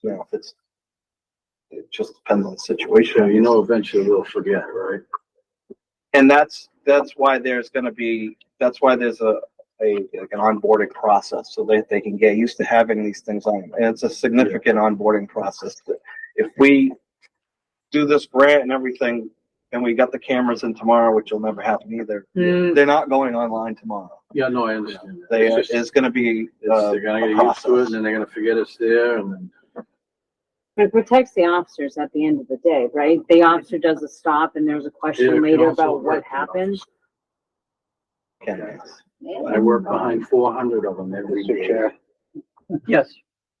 you know, if it's, it just depends on the situation. you know eventually we'll forget, right? And that's, that's why there's gonna be, that's why there's a, a, like an onboarding process, so that they can get used to having these things on. And it's a significant onboarding process. If we do this grant and everything, and we got the cameras in tomorrow, which will never happen either, they're not going online tomorrow. Yeah, no, I understand. that. They, It's just- it's gonna be, it's- uh, They're gonna a get used to it process. and then they're gonna forget it's there and then. But it protects the officers at the end of the day, right? The officer does a stop and there's a Yeah, it question can later also about what hurt the happened. officer. cameras. I work behind four hundred of them every Mr. day. Chair. Yes.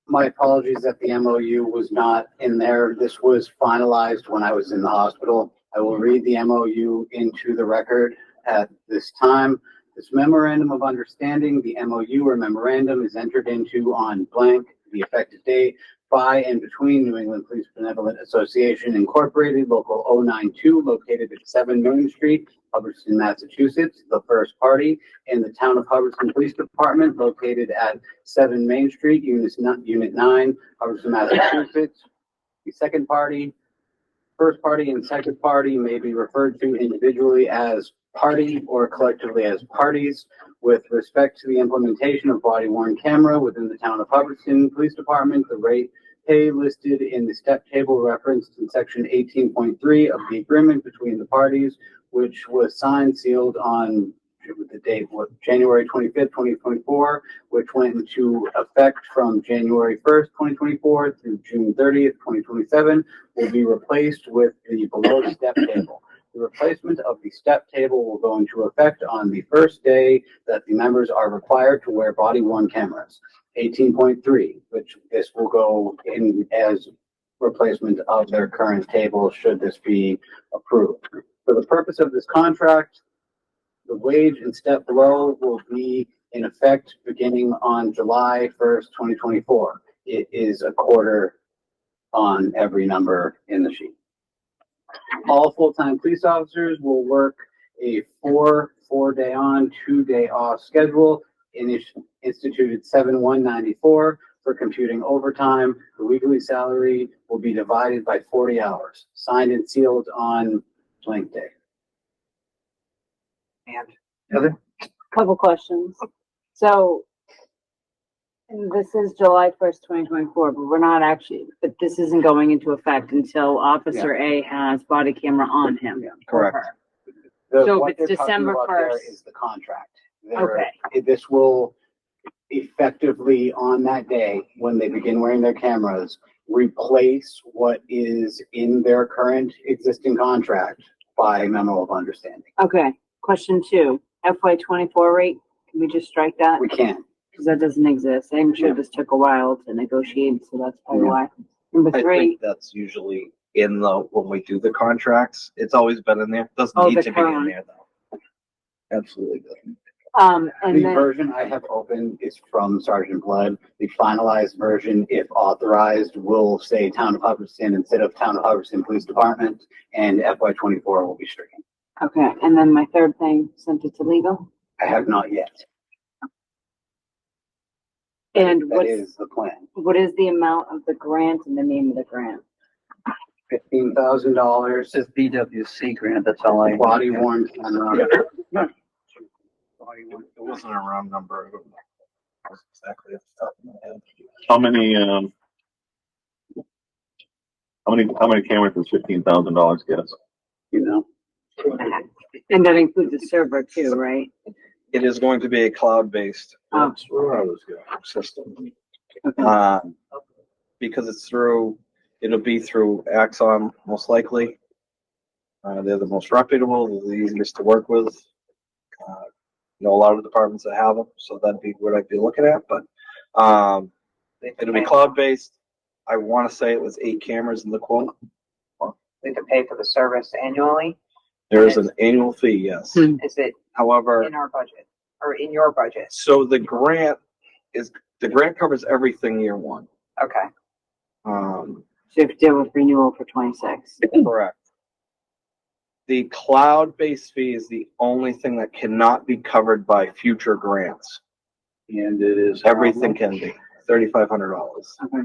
My apologies that the MOU was not in there. This was finalized when I was in the hospital. I will read the MOU into the record at this time. This memorandum of understanding, the MOU or memorandum is entered into on blank, the effective date by and between New England Police Benevolent Association Incorporated, Local 092, located at 7 Main Street, Hubbardston, Massachusetts, the first party, and the Town of Hubbardston Police Department, located at 7 Main Street, Unit nine- Unit 9, Hubbardston, Massachusetts. The second party, first party and second party may be referred to individually as party or collectively as parties. With respect to the implementation of body worn camera within the Town of Hubbardston Police Department, the rate pay listed in the step table referenced in Section 18.3 of the agreement between the parties, which was signed sealed on the date, what, January 25th, 2024, which went into effect from January 1st, 2024 through June 30th, 2027, will be replaced with the below step table. The replacement of the step table will go into effect on the first day that the members are required to wear body worn cameras. 18.3, which this will go in as replacement of their current table should this be approved. For the purpose of this contract, the wage and step below will be in effect beginning on July first, twenty twenty-four. It is a quarter on every number in the sheet. All full-time police officers will work a four, four-day on, two-day off schedule init- instituted seven one ninety-four for computing overtime. The weekly salary will be divided by forty hours, signed and sealed on blank day. And Couple questions. So, and this is July first, twenty twenty-four, but we're not actually, but this isn't going into effect until Officer A has body camera on him. Yeah, or correct. her. The- So if what it's they're talking December about there 1st. Is the contract. They're- Okay, it- This will effectively on that day, when they begin wearing their cameras, replace what is in their current existing contract by memo of understanding. okay. Question two, FY twenty-four rate, can we just strike that? We can. Because that doesn't exist. I'm sure Yeah. this took a while to negotiate, so that's probably Yeah. why. Number I three, think that's usually in the, when we do the contracts, it's always been in there, doesn't Oh, need the to be in current. there though. Absolutely doesn't. um, The and then, version I have open is from Sergeant Blood. The finalized version, if authorized, will say Town of Hubbardston instead of Town of Hubbardston Police Department, and FY twenty-four will be stricken. okay, and then my third thing, sent it to legal. I have not yet. And That what's, is the plan. what is the amount of the grant and the name of the grant? Fifteen thousand dollars. This is BWC grant, that's all I. Body worn camera. It wasn't a round number. I don't know. It was Exactly. off the top of my head. How many, um, how many, how many cameras does fifteen thousand dollars get us? You know, And that includes the server too, right? It is going to be a cloud-based Oh. That's where I was going. Um, system. Um, because it's through, it'll be through Axon most likely. Uh, they're the most reputable, they're the easiest to work with. Uh, Know a lot of departments that have them, so that'd be what I'd be looking at, but, um, it'll be cloud-based. I wanna say it was eight cameras in the quote. we could pay for the service annually? There is an annual fee, yes. Hmm. Is it However, in our budget or in your budget? so the grant is, the grant covers everything year one. Okay. Um, So you have to deal with renewal for twenty-six. Correct. The cloud-based fee is the only thing that cannot be covered by future grants. And it is. Everything can be, thirty-five hundred dollars. Okay.